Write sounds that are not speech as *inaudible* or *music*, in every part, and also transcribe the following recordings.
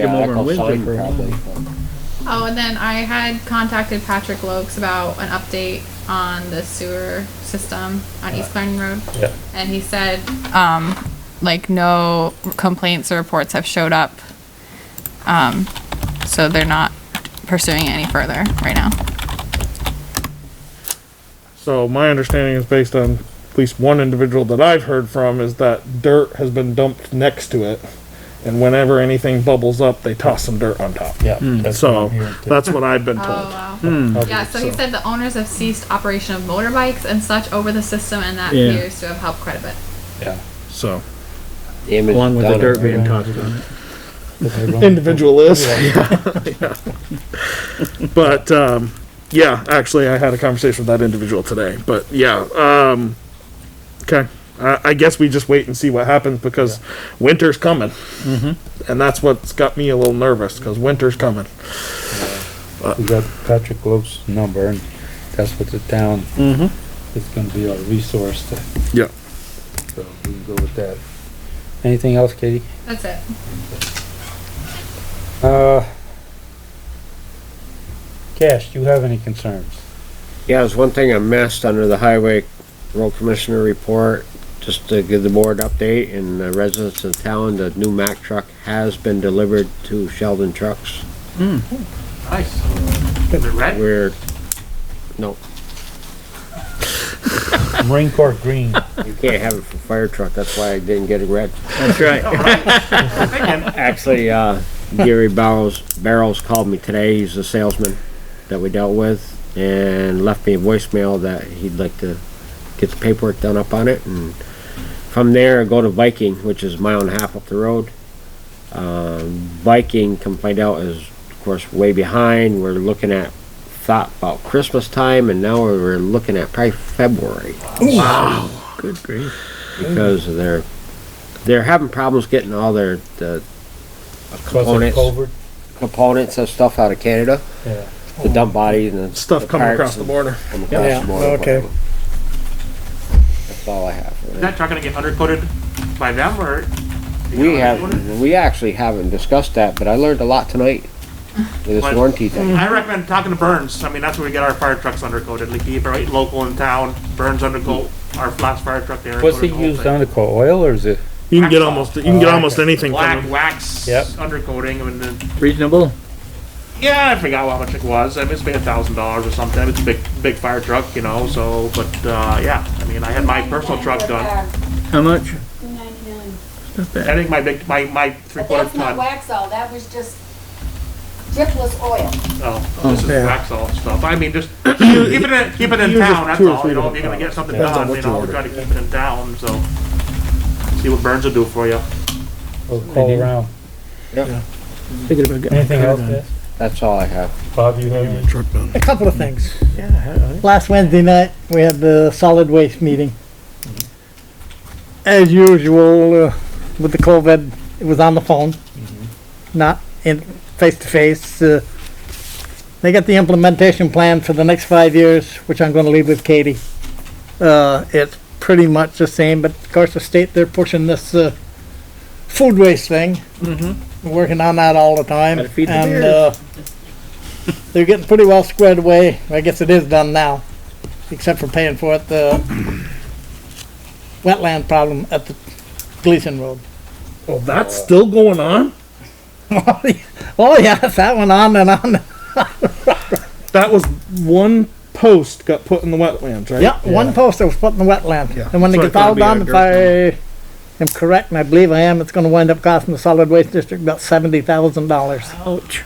Played him Yeah, over on I'll call Wednesday. probably. Oh, and then I had contacted Patrick Lokes about an update on the sewer system on East Clarendon Road. Yeah. And he said, um, like, no complaints or reports have showed up. Um, so they're not pursuing it any further right now. So my understanding is based on at least one individual that I've heard from is that dirt has been dumped next to it, and whenever anything bubbles up, they toss some dirt on top. Yeah. that's what So I'm hearing too. Mm. that's what I've been Oh, told. wow. Okay, Yeah, so he said the owners have ceased operation of motorbikes and such over the system, and that Yeah. appears to have helped quite a bit. Yeah. So Damage Along with the done dirt already. being tossed on it. individual is. *laughs* but um, yeah, actually, I had a conversation with that individual today. But yeah, um, okay. I, I guess we just wait and see what happens because winter's coming, mm-hmm. and that's what's got me a little nervous because winter's coming. We got Patrick Loeb's number, and that's what the town, it's gonna be our resource to, Yeah. so we can go with that. Anything else, Katie? That's it. Uh, Cash, do you have any concerns? Yeah, there's one thing I missed under the highway road commissioner report, just to give the board an update and the residents of town, the new Mack truck has been delivered to Sheldon Trucks. Nice. We're, no, Marine Corps *laughs* Green, you can't have it for fire truck, that's why I didn't get it red. That's right. Actually, uh, Gary Barrows, Barrows called me today, he's the salesman that we dealt with, and left me a voicemail that he'd like to get the paperwork done up on it, and from there, go to Viking, which is a mile and a half up the road. Um, Viking, come find out, is of course way behind, we're looking at, thought about Christmas time, and now we're looking at probably February Good grief. because of their, they're having problems getting all their, the was it components, Culver? components of stuff out of Canada, Yeah. the dump bodies and the Stuff the coming parts across the and border. come across Yeah, the border, okay. whatever. That's all I have. for Is that. that truck gonna get undercoated by them or? We have, we actually haven't discussed that, but I learned a lot tonight with this What? warranty thing. I recommend talking to Burns. I mean, that's where we get our fire trucks undercoated. Like, keep right local in town. Burns undercoat our flash fire truck. They What's undercoated it the whole used thing. on the coal oil, or is it? You can get almost you can get almost anything from Black them. wax Yep. undercoating. I mean, the- Reasonable? yeah, I forgot how much it was. I mean, it's been a thousand dollars or something. It's a big, big fire truck, you know. So, but uh, yeah, I mean, I had my personal truck done. uh, How much? $2.99. I think my big, my my three But quarter that's not ton. Waxall, that was just dripless oil. Oh, this is yeah. Waxall stuff. I *clears throat* mean, just keep it in, keep it in Use it town. That's two or all. three You know, different if you're gonna get something Depends on done, what you you know, we're order. trying to keep it in town. So, see what Burns will do for you. Or Oh, call around? Thinking about getting my Anything car else, done. Cash? That's all I have. Bob, you have any? A couple of things. Last Wednesday night, we had the solid waste meeting. As usual, uh, with the COVID, it was on the phone, Mm-hmm. not in face-to-face. uh, They got the implementation plan for the next five years, which I'm gonna leave with Katie. Uh, it's pretty much the same, but of course, the state, they're pushing this, uh, food waste thing. Working on that all the time. Mm-hmm. Gotta feed the and, bears. uh, They're getting pretty well squared away. I guess it is done now, except for paying for it, the wetland problem at the Gleason Road. *laughs* Well, Oh, that's still going on. Oh, yeah, that went on and on. That was one post got put in the wetlands, right? Yeah, one post that was put in the Yeah. wetland. And when they So get it's gonna all be a done, if dirt I am correct, and I believe I am, it's gonna wind up costing the solid waste district about seventy thousand dollars Ouch.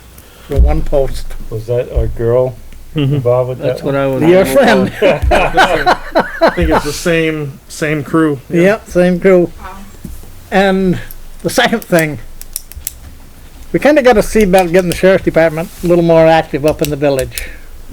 for one post. Was that our girl involved with that? That's one? what I was. Your friend, I think it's the same same crew. yep, same crew. And the second thing, we kinda gotta see about getting the sheriff's department a little more active up in the village.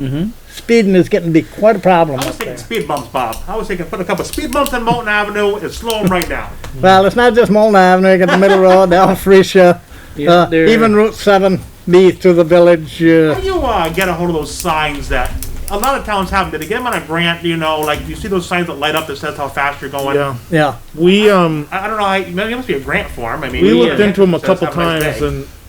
Mhm. Speeding is getting to be quite a problem I up was thinking there. speed bumps, Bob. I was thinking put a couple speed bumps in Moulton Avenue and slow them right *laughs* down. Well, it's not just Moulton Avenue, you got the Middle Road, Alphresia, uh, even Route seven B through the village, uh, How do you uh, get a hold of those signs that a lot of towns have? them? Did they get them on a grant? You know, like you see those signs that light up that says how fast you're going. Yeah. yeah. We um I, I don't know. I, there must be a grant for them. I mean, we you looked get it, into them a says, couple "Have a nice times day." and